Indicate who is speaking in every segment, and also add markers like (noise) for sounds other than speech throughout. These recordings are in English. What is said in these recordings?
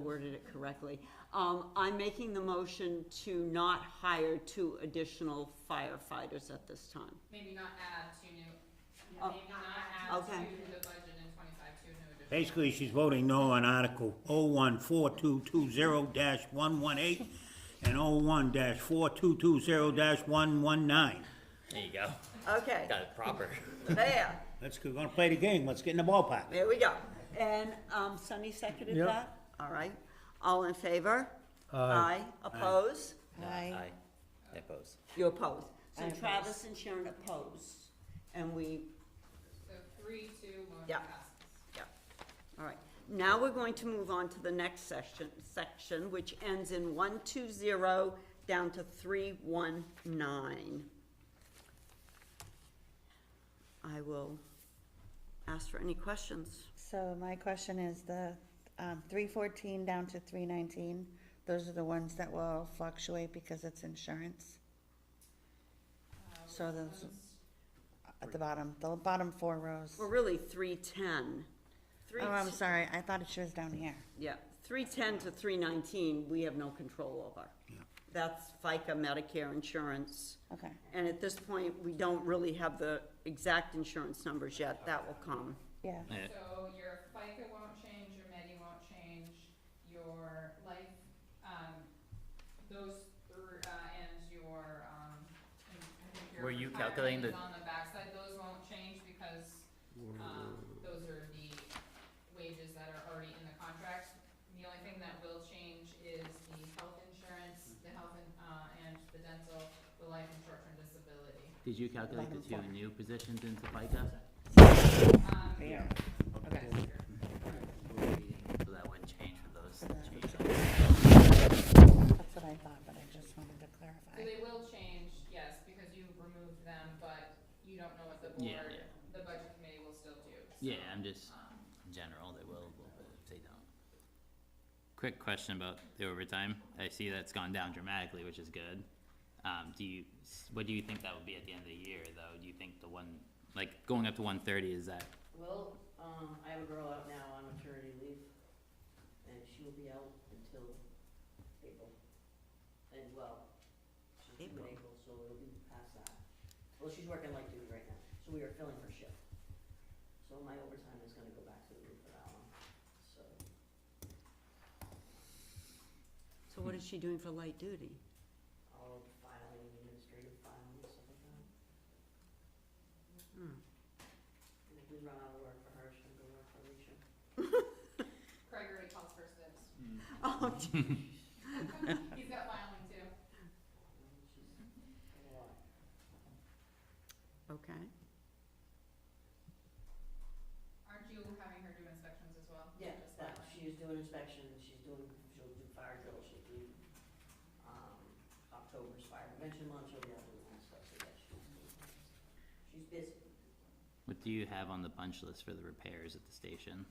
Speaker 1: worded it correctly. Um, I'm making the motion to not hire two additional firefighters at this time.
Speaker 2: Maybe not add two new,
Speaker 1: Oh,
Speaker 2: maybe not add
Speaker 1: okay.
Speaker 2: to the budget in twenty-five, two new additional.
Speaker 3: Basically, she's voting no on Article oh one four two two zero one one eight and oh one four two two zero one one nine.
Speaker 4: There you go.
Speaker 1: Okay,
Speaker 4: Got it proper.
Speaker 1: there,
Speaker 3: Let's, go. gonna play the game, let's get in the ballpark.
Speaker 1: there we go. And, um, Sunny seconded
Speaker 5: Yep.
Speaker 1: that? All right. All in favor?
Speaker 5: Aye.
Speaker 1: Oppose?
Speaker 4: Aye. Aye. I oppose.
Speaker 1: You oppose. So Travis and Sharon oppose, and we
Speaker 2: So three, two, one
Speaker 1: Yeah.
Speaker 2: passes.
Speaker 1: Yeah, all right. Now we're going to move on to the next section, section, which ends in one two zero down to three one nine. I will ask for any questions.
Speaker 6: So my question is the, um, three fourteen down to three nineteen, those are the ones that will fluctuate because it's insurance? So those, at the bottom, the bottom four rows.
Speaker 1: Well, really, three ten. Three,
Speaker 6: Oh, I'm
Speaker 1: t-
Speaker 6: sorry, I thought it was down here.
Speaker 1: yeah, three ten to three nineteen, we have no control over. That's FICA, Medicare, insurance.
Speaker 6: Okay,
Speaker 1: And at this point, we don't really have the exact insurance numbers yet. That will come.
Speaker 6: yeah,
Speaker 2: So your FICA won't change, your Medi won't change, your life, um, those, thr- uh, and your, um, and I think your
Speaker 4: Were you
Speaker 2: retirement
Speaker 4: calculating
Speaker 2: is
Speaker 4: the-
Speaker 2: On the backside, those won't change because, um, those are the wages that are already in the contract. The only thing that will change is the health insurance, the health and, uh, and the dental, the life and short-term disability.
Speaker 7: Did you calculate the two new positions into FICA?
Speaker 2: Um,
Speaker 6: yeah, okay.
Speaker 7: So that wouldn't change for those changes.
Speaker 6: That's what I thought, but I just wanted to
Speaker 2: So
Speaker 6: clarify.
Speaker 2: they will change, yes, because you removed them, but you don't know what the
Speaker 7: Yeah,
Speaker 2: board,
Speaker 7: yeah.
Speaker 2: the budget committee will still do. so,
Speaker 7: Yeah, I'm just,
Speaker 2: um,
Speaker 7: in general, they will, a little bit if they don't. Quick question about the overtime. I see that's gone down dramatically, which is good. Um, do you, what do you think that would be at the end of the year, though? Do you think the one, like, going up to one thirty, is that,
Speaker 8: Well, um, I have a girl out now on maternity leave, and she will be out until April. And well, she's due in April, so it'll be past that. Well, she's working light duty right now, so we are filling her shift. So my overtime is gonna go back to the roof for that one, so.
Speaker 1: So what is she doing for light duty?
Speaker 8: all of the filing, administrative filing and stuff like that.
Speaker 1: Hmm.
Speaker 8: And if we run out of work for her, she'll go work for Alicia.
Speaker 2: Craig already calls for sibs.
Speaker 7: Mm-hmm.
Speaker 8: (laughs)
Speaker 1: Oh, gee.
Speaker 2: He's got filing too.
Speaker 8: Um, She's got a lot.
Speaker 1: okay.
Speaker 2: Aren't you having her do inspections as well?
Speaker 8: Yeah,
Speaker 2: Just
Speaker 8: but
Speaker 2: filing.
Speaker 8: she's doing inspections, she's doing, she'll do fire drill, she'll do, um, October's fire prevention month, she'll be out doing that stuff, so yeah, she's busy. She's busy.
Speaker 7: what do you have on the punch list for the repairs at the station,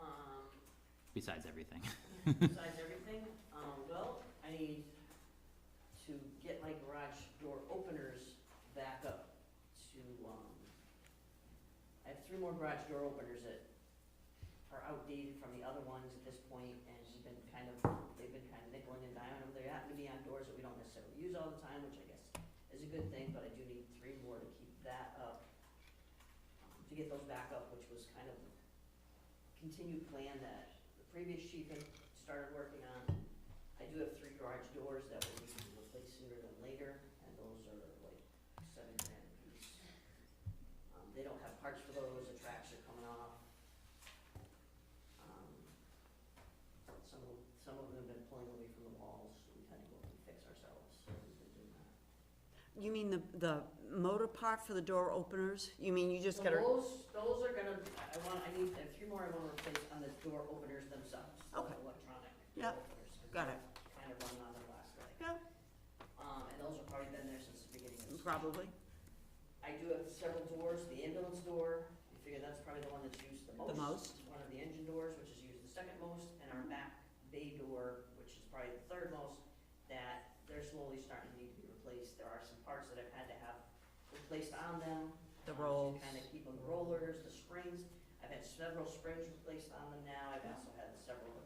Speaker 8: Um,
Speaker 7: besides everything?
Speaker 8: besides everything, um, well, I need to get my garage door openers back up to, um, I have three more garage door openers that are outdated from the other ones at this point, and they've been kind of, they've been kind of nickeling and diming them. They happen to be on doors that we don't necessarily use all the time, which I guess is a good thing, but I do need three more to keep that up, um, to get those back up, which was kind of the continued plan that the previous chief had started working on. I do have three garage doors that will need to be replaced sooner than later, and those are like seven grand a piece. Um, they don't have parts for those, the tracks are coming off. Um, Some of, some of them have been pulling away from the walls, so we've had to go and fix ourselves, so we've been doing that.
Speaker 1: You mean the, the motor part for the door openers? You mean you just
Speaker 8: So
Speaker 1: gotta,
Speaker 8: Those, those are gonna, I I want, I need, I have three more I wanna replace on the door openers themselves, those
Speaker 1: Okay.
Speaker 8: electronic
Speaker 1: Yep.
Speaker 8: door openers. 'cause
Speaker 1: Got it.
Speaker 8: those Kind of run on their last leg.
Speaker 1: Yep.
Speaker 8: Um, and those have probably been there since the beginning of the
Speaker 1: probably?
Speaker 8: I do have several doors, the ambulance door, I figure that's probably the one that's used the most.
Speaker 1: most.
Speaker 8: One of the engine doors, which is used the second most, and our back bay door, which is probably the third most, that they're slowly starting to need to be replaced, there are some parts that I've had to have replaced on them.
Speaker 1: The
Speaker 8: um,
Speaker 1: rolls.
Speaker 8: To kind of keep them rollers, the springs, I've had several springs replaced on them now, I've asked